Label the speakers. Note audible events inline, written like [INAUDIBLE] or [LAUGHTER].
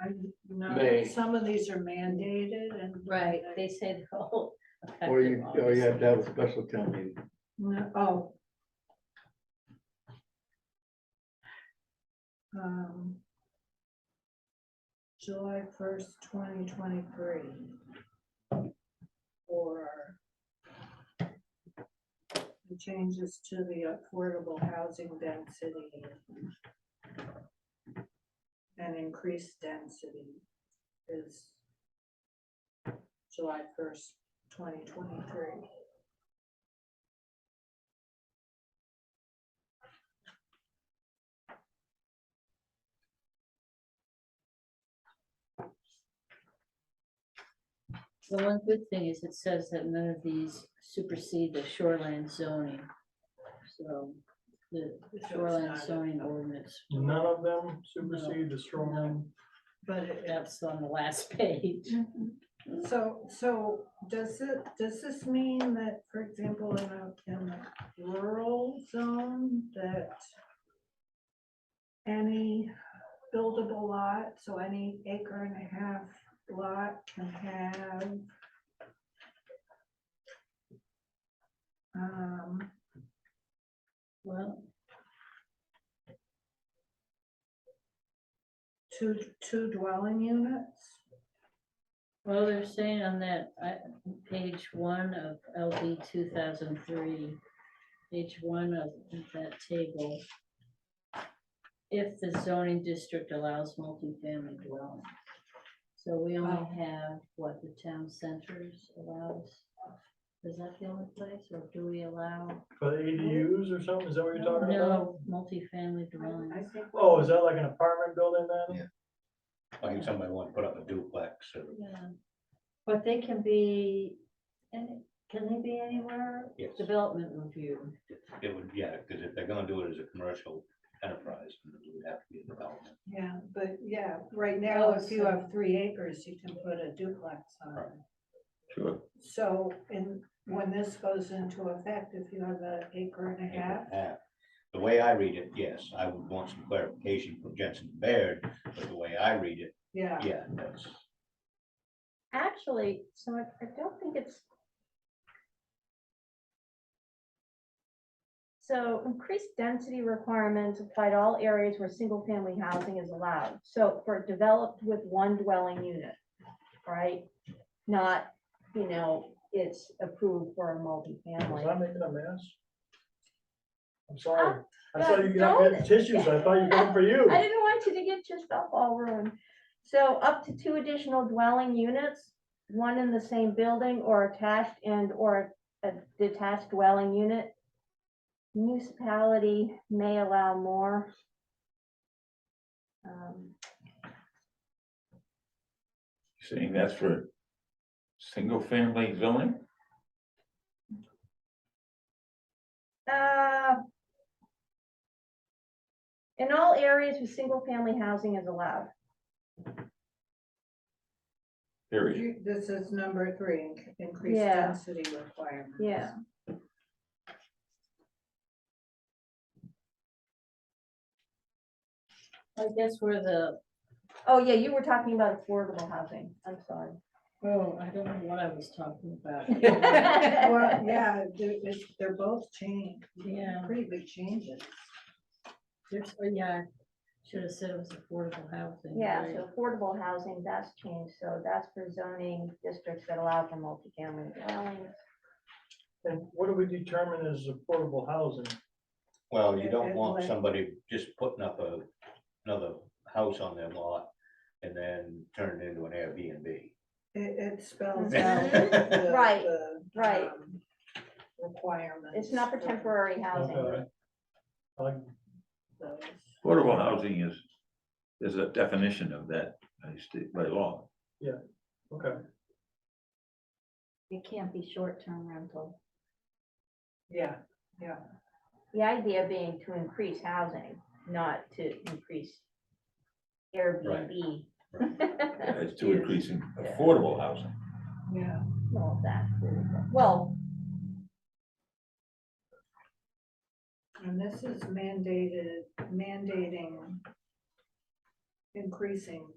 Speaker 1: I, you know,
Speaker 2: May.
Speaker 1: some of these are mandated and.
Speaker 3: Right, they oh, say [LAUGHS] they're all.
Speaker 2: Or you, oh,
Speaker 3: effective
Speaker 2: or you have to have a
Speaker 3: August.
Speaker 2: special town meeting.
Speaker 1: No, oh. Um, July first, twenty twenty-three. Or the changes to the affordable housing density and increased density is July first, twenty twenty-three.
Speaker 3: The one good thing is it says that none of these supersede the shoreland zoning. So the
Speaker 1: it's
Speaker 3: shoreland
Speaker 1: not a-
Speaker 3: zoning ordinance,
Speaker 4: None of them supersede the shoreline.
Speaker 1: But it-
Speaker 3: that's on the last [LAUGHS] page.
Speaker 1: So, so does it, does this mean that, for example, in a, in a rural zone that any buildable lot, so any acre and a half lot can have um,
Speaker 3: Well,
Speaker 1: two, two dwelling units?
Speaker 3: well, they're saying on that, I, page one of LD two thousand three, page one of that table. If the zoning district allows multifamily dwelling. So we
Speaker 1: Oh.
Speaker 3: only have what the town centers allows. Is that the only place, or do we allow?
Speaker 4: For the ADUs or something, is that what you're talking about?
Speaker 3: No, multifamily
Speaker 1: I- I
Speaker 3: dwellings.
Speaker 1: think-
Speaker 4: Oh, is that like an apartment building then?
Speaker 5: Yeah. Like if somebody wanted to put up a duplex or,
Speaker 3: Yeah. But they can be, any can they be anywhere?
Speaker 5: yes,
Speaker 3: Development review.
Speaker 5: it would, yeah, because if they're gonna do it as a commercial enterprise, then it would have to be a development.
Speaker 1: Yeah, but yeah, right now,
Speaker 3: Oh,
Speaker 1: if you
Speaker 3: so-
Speaker 1: have three acres, you can put a duplex on it.
Speaker 6: Sure.
Speaker 1: So, and when this goes into effect, if you have an acre and a half,
Speaker 5: Yeah. The way I read it, yes, I would want some clarification from Jensen Baird, but the way I read it,
Speaker 1: yeah,
Speaker 5: yeah, that's,
Speaker 3: Actually, so I, I don't think it's.
Speaker 7: So increased density requirements apply to all areas where single-family housing is allowed. So for developed with one dwelling unit, right? Not, you know, it's approved for a
Speaker 4: Was
Speaker 7: multifamily.
Speaker 4: I making a mess? I'm sorry. I
Speaker 7: Uh,
Speaker 4: saw you got
Speaker 7: don't-
Speaker 4: good tissues. I thought you were going for you.
Speaker 7: [LAUGHS] I didn't want you to get yourself all ruined. So up to two additional dwelling units, one in the same building or attached and or a detached dwelling unit. Municipality may allow more. Um,
Speaker 6: Saying that's for single family zoning?
Speaker 7: Uh, In all areas with single-family housing is allowed.
Speaker 6: Period.
Speaker 1: you- this is number three, in- increased
Speaker 7: Yeah.
Speaker 1: density requirements.
Speaker 7: Yeah.
Speaker 3: I guess where the,
Speaker 7: Oh, yeah, you were talking about affordable housing. I'm sorry.
Speaker 3: oh, I don't know what I was talking about.
Speaker 8: [LAUGHS]
Speaker 1: Well, yeah, they're, it's- they're both changed,
Speaker 3: Yeah,
Speaker 1: pretty big changes.
Speaker 3: there's, oh, yeah, should have said it was affordable housing.
Speaker 7: Yeah,
Speaker 3: right?
Speaker 7: so affordable housing, that's changed. So that's for zoning districts that allow for multifamily dwellings.
Speaker 4: And what do we determine as affordable housing?
Speaker 5: well, you
Speaker 1: Yeah,
Speaker 5: don't want
Speaker 1: like-
Speaker 5: somebody just putting up a, another house on their lot and then turn it into an Airbnb.
Speaker 1: It, it spells
Speaker 7: Mhm.
Speaker 1: out. [LAUGHS] the-
Speaker 7: Right,
Speaker 1: the,
Speaker 7: right.
Speaker 1: um, Requirements.
Speaker 7: It's not for temporary housing.
Speaker 4: Okay. Like,
Speaker 1: those.
Speaker 6: Affordable housing is, there's a definition of that by state, by law.
Speaker 4: okay,
Speaker 8: It can't be short-term rental.
Speaker 1: Yeah,
Speaker 7: The idea being to increase housing, not to increase Airbnb.
Speaker 6: It's to increase in affordable housing.
Speaker 1: yeah.
Speaker 7: All of that. Well,
Speaker 1: And this is mandated, mandating increasing